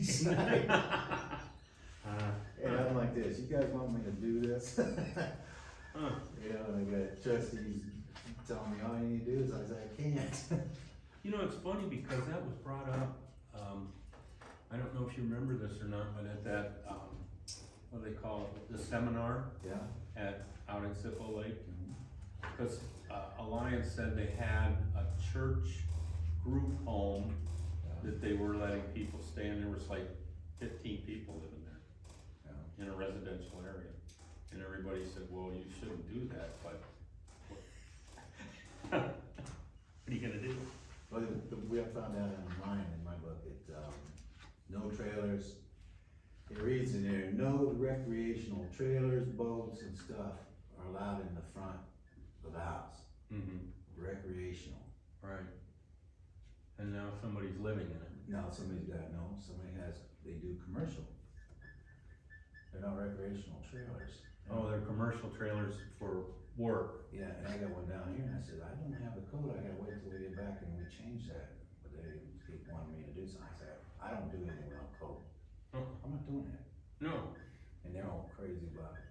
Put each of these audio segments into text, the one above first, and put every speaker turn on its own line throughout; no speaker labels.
last night.
Uh,
And I'm like this, you guys want me to do this? You
uh,
know, and I got trustees telling me, all you need to do is, I said, I can't.
You know, it's funny because that was brought up, um, I don't know if you remember this or not, but at that, um, what do they call it, the seminar
Yeah,
at, out at Zippo Lake. Cause, uh, Alliance said they had a church group home
yeah,
that they were letting people stay in, there was like fifteen people living there
yeah.
in a residential area. And everybody said, well, you shouldn't do that, but. what- What are you gonna do?
Well, the, the, we have found out in mine, in my book, it, um, no trailers. It reads in there, no recreational trailers, boats and stuff are allowed in the front of the house,
Mm-hmm,
recreational.
right. And now somebody's living in it.
Now, somebody's got, no, somebody has, they do commercial. They're not recreational trailers.
Oh, they're commercial trailers for work.
Yeah, and I got one down here, and I said, I don't have the code, I gotta wait till we get back and we change that, but they, they wanted me to do something, I said, I don't do anything without code,
Uh-uh.
I'm not doing that,
No,
and they're all crazy about it.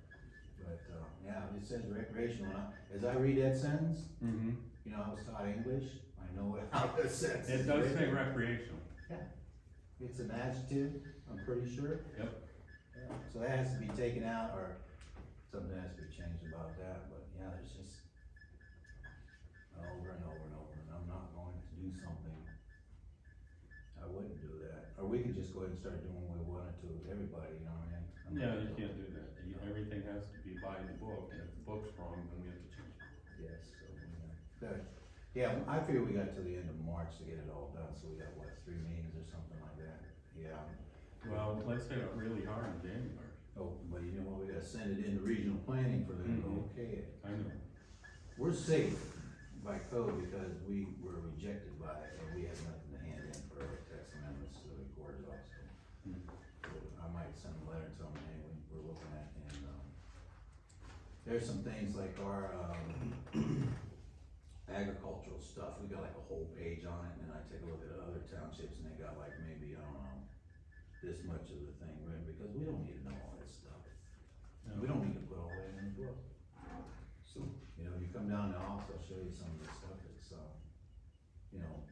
But, um, yeah, it says recreational, and I- as I read that sentence,
mm-hmm,
you know, I was taught English, I know what, how that sentence
it
is
does say
written.
recreational,
It's an adjective, I'm pretty sure.
Yep.
Yeah, So that has to be taken out, or something has to be changed about that, but yeah, there's just over and over and over, and I'm not going to do something. I wouldn't do that, or we could just go ahead and start doing what we wanted to with everybody, you know what I mean? I'm not
yeah, you
gonna-
can't do that, You- everything has to be by the book, and if the book's wrong, then we have to change it.
Yes, so, we got- good. Yeah, I figure we got till the end of March to get it all done, so we got what, three meetings or something like that? Yeah.
Well, let's say it really hard in January,
Oh, but you know what, we gotta send it into regional planning for them
Mhm.
to okay it.
I know,
We're safe by code because we were rejected by it and we have nothing to hand in for our tax amendments to the recorder's office.
Mhm.
So I might send a letter to them, hey, we- we're looking at, and, um, there's some things like our, um, agricultural stuff, we got like a whole page on it, and I take a look at other townships and they got like maybe, I don't know, this much of the thing written, because we don't need to know all that stuff. We don't need to put all that in the book. So, you know, you come down to the office, I'll show you some of the stuff that's, um, you know,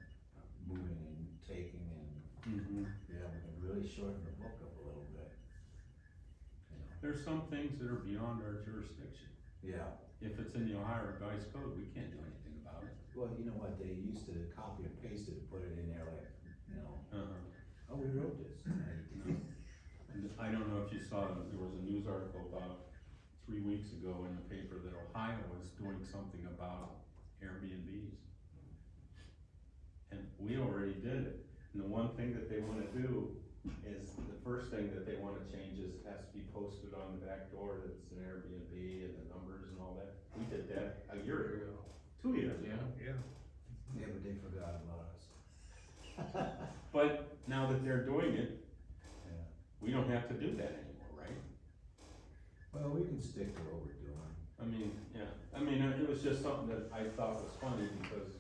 moving and taking and,
hmm
yeah, we can really shorten the book up a little bit. You know,
There's some things that are beyond our jurisdiction,
yeah,
if it's in the Ohio Revised Code, we can't do anything about it.
well, you know what, they used to copy and paste it and put it in there like, you know,
Uh-huh.
oh, we wrote this.
And I don't know if you saw, there was a news article about three weeks ago in the paper that Ohio was doing something about Airbnbs. And we already did it, and the one thing that they wanna do is, the first thing that they wanna change is it has to be posted on the back door that it's an Airbnb and the numbers and all that. We did that a year ago, two years ago.
Yeah.
Yeah, but they forgot about us.
But now that they're doing it,
Yeah.
we don't have to do that anymore, right?
Well, we can stick to what we're doing.
I mean, yeah, I mean, uh, it was just something that I thought was funny because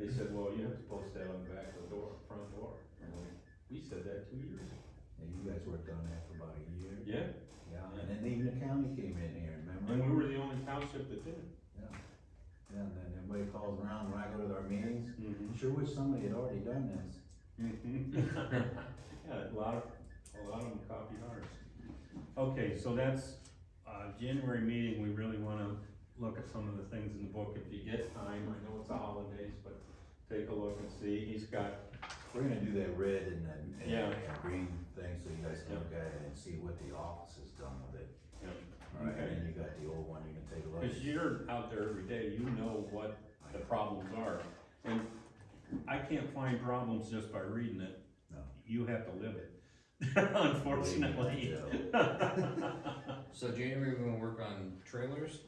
they said, well, you have to post that on the back of the door, front door. And we- We said that two years ago.
And you guys worked on that for about a year.
Yeah,
Yeah, and then even the county came in here, remember?
and we were the only township that did it.
Yeah, and then everybody calls around when I go to their meetings, I
Mm-hmm.
sure wish somebody had already done this.
Yeah, a lot of, a lot of them copied ours. Okay, so that's, uh, January meeting, we really wanna look at some of the things in the book if you get time. I know it's the holidays, but take a look and see. He's got
We're gonna do that red and the, and
Yeah.
and green thing, so you guys can
Yeah.
look at it and see what the office has done with it.
Yeah.
Alright, and
Okay.
then you got the old one, you can take a look.
Because you're out there every day, you know what the problems are. And I can't find problems just by reading it.
No.
You have to live it, unfortunately.
Believe
Uh,
So January, we're gonna work on trailers?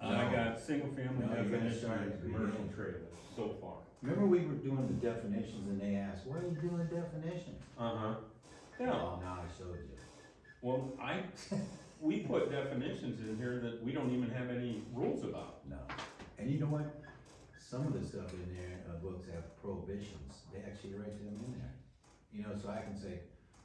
I got single family
No, you gotta
definition
start
and
at the
commercial
beginning.
trailer so far.
Remember we were doing the definitions and they asked, why are you doing definitions?
Uh-huh. Yeah,
Oh, now I showed you.
well, I, we put definitions in here that we don't even have any rules about.
No. And you know what? Some of the stuff in there, uh, books have prohibitions. They actually write them in there. You know, so I can say,